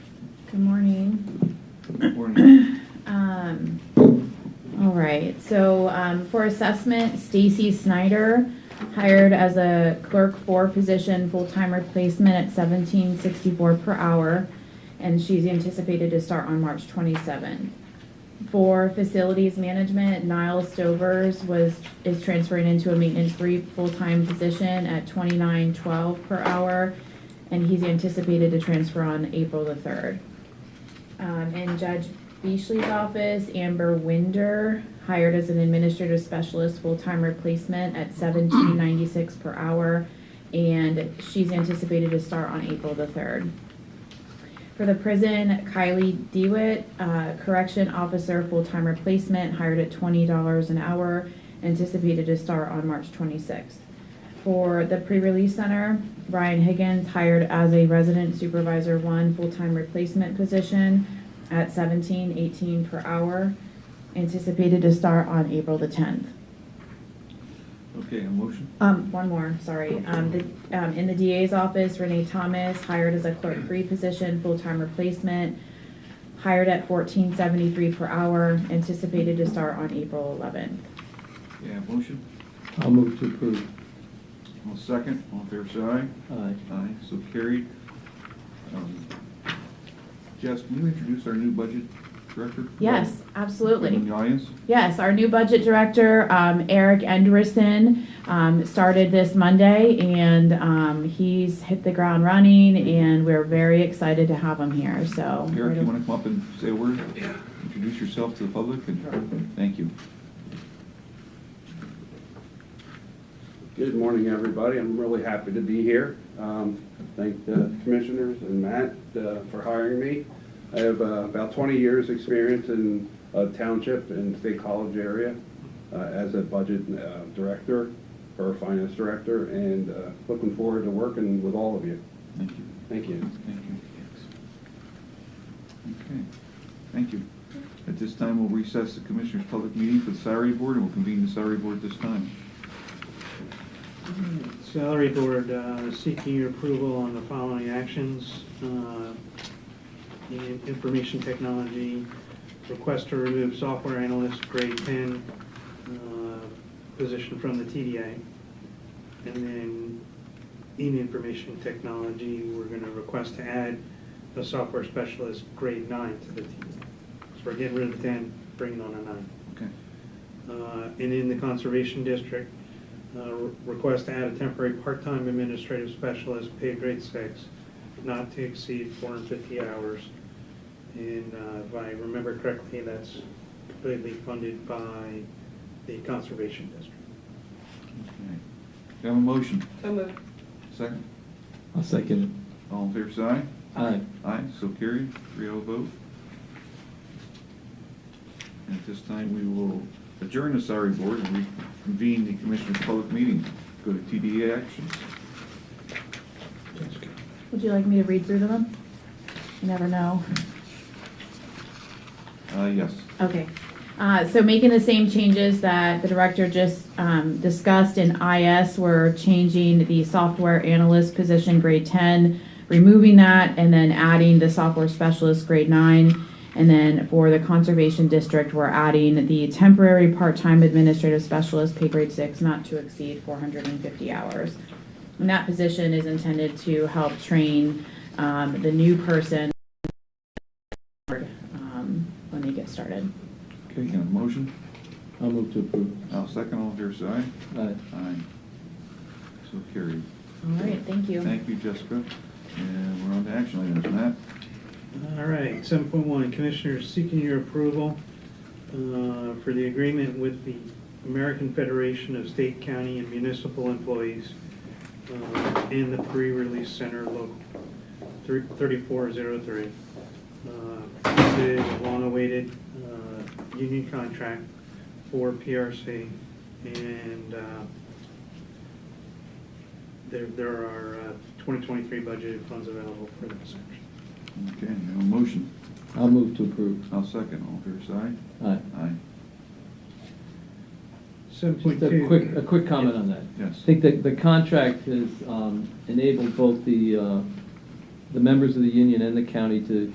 Good morning. Morning. Um, all right, so, um, for assessment, Stacy Snyder hired as a clerk four position, full-time replacement at seventeen sixty-four per hour. And she's anticipated to start on March twenty-seventh. For facilities management, Niles Stovers was, is transferring into a maintenance three full-time position at twenty-nine twelve per hour. And he's anticipated to transfer on April the third. Um, in Judge Beachley's office, Amber Winder, hired as an administrative specialist, full-time replacement at seventeen ninety-six per hour. And she's anticipated to start on April the third. For the prison, Kylie Dewitt, uh, correction officer, full-time replacement, hired at twenty dollars an hour, anticipated to start on March twenty-sixth. For the pre-release center, Ryan Higgins hired as a resident supervisor one, full-time replacement position at seventeen eighteen per hour, anticipated to start on April the tenth. Okay, a motion? Um, one more, sorry. Um, the, um, in the DA's office, Renee Thomas, hired as a clerk three position, full-time replacement, hired at fourteen seventy-three per hour, anticipated to start on April eleventh. Yeah, a motion? I'll move to approve. I'll second. All in favor, say aye. Aye. Aye, so carried. Um, Jess, can you introduce our new budget director? Yes, absolutely. In the audience? Yes, our new budget director, um, Eric Enderson, um, started this Monday, and um, he's hit the ground running, and we're very excited to have him here, so. Eric, you want to come up and say a word? Yeah. Introduce yourself to the public and thank you. Good morning, everybody. I'm really happy to be here. Um, Thank the commissioners and Matt uh, for hiring me. I have uh, about 20 years' experience in uh, township and state college area uh, as a budget uh, director or finance director, and uh, looking forward to working with all of you. Thank you. Thank you. Thank you. Okay, thank you. At this time, we'll recess the Commissioners' Public Meeting for the Salary Board, and we'll convene the Salary Board at this time. Salary Board uh, seeking your approval on the following actions. Uh, the Information technology, request to remove software analyst grade 10 uh, position from the TDA. And then in information technology, we're going to request to add a software specialist grade 9 to the TDA. So we're getting rid of 10, bringing on a 9 Okay, uh, and in the Conservation District. uh, re- Request to add a temporary part-time administrative specialist, paid grade six, not to exceed 450 hours. And uh, if I remember correctly, that's completely funded by the Conservation District. okay. Do I have a motion? So moved. Second? I'll second All in favor, say aye. it. Aye. Aye, so carried, three oh vote. And at this time, we will adjourn the salary board and reconvene the commissioners' public meeting. Go to TDA actions. Would you like me to read through them? You never know. Uh, yes. Okay, Uh, so making the same changes that the director just um, discussed in IS, we're changing the software analyst position grade 10, removing that, and then adding the software specialist grade 9. And then for the conservation district, we're adding the temporary part-time administrative specialist pay grade 6, not to exceed 450 hours. And that position is intended to help train um, the new person um, when they get started. Okay, you have a motion? I'll move to approve. I'll second, all in favor, say aye. Aye. Aye. So carried. All right, thank you. Thank you, Jessica. And we're on to action items. Matt? All right, seven point one, Commissioners seeking your approval uh, for the agreement with the American Federation of State, County, and Municipal Employees uh, in the Pre-Release Center Local thirty-four zero three. This is a long-awaited uh, union contract for PRC, and uh, there, there are uh, twenty twenty-three budgeted funds available for this action. Okay, you have a motion? I'll move to approve. I'll second, all in favor, say Aye. aye. Aye. Seven point Just two. a quick, a quick comment on that. Yes. I think that the contract has um, enabled both the, uh, the members of the union and the county to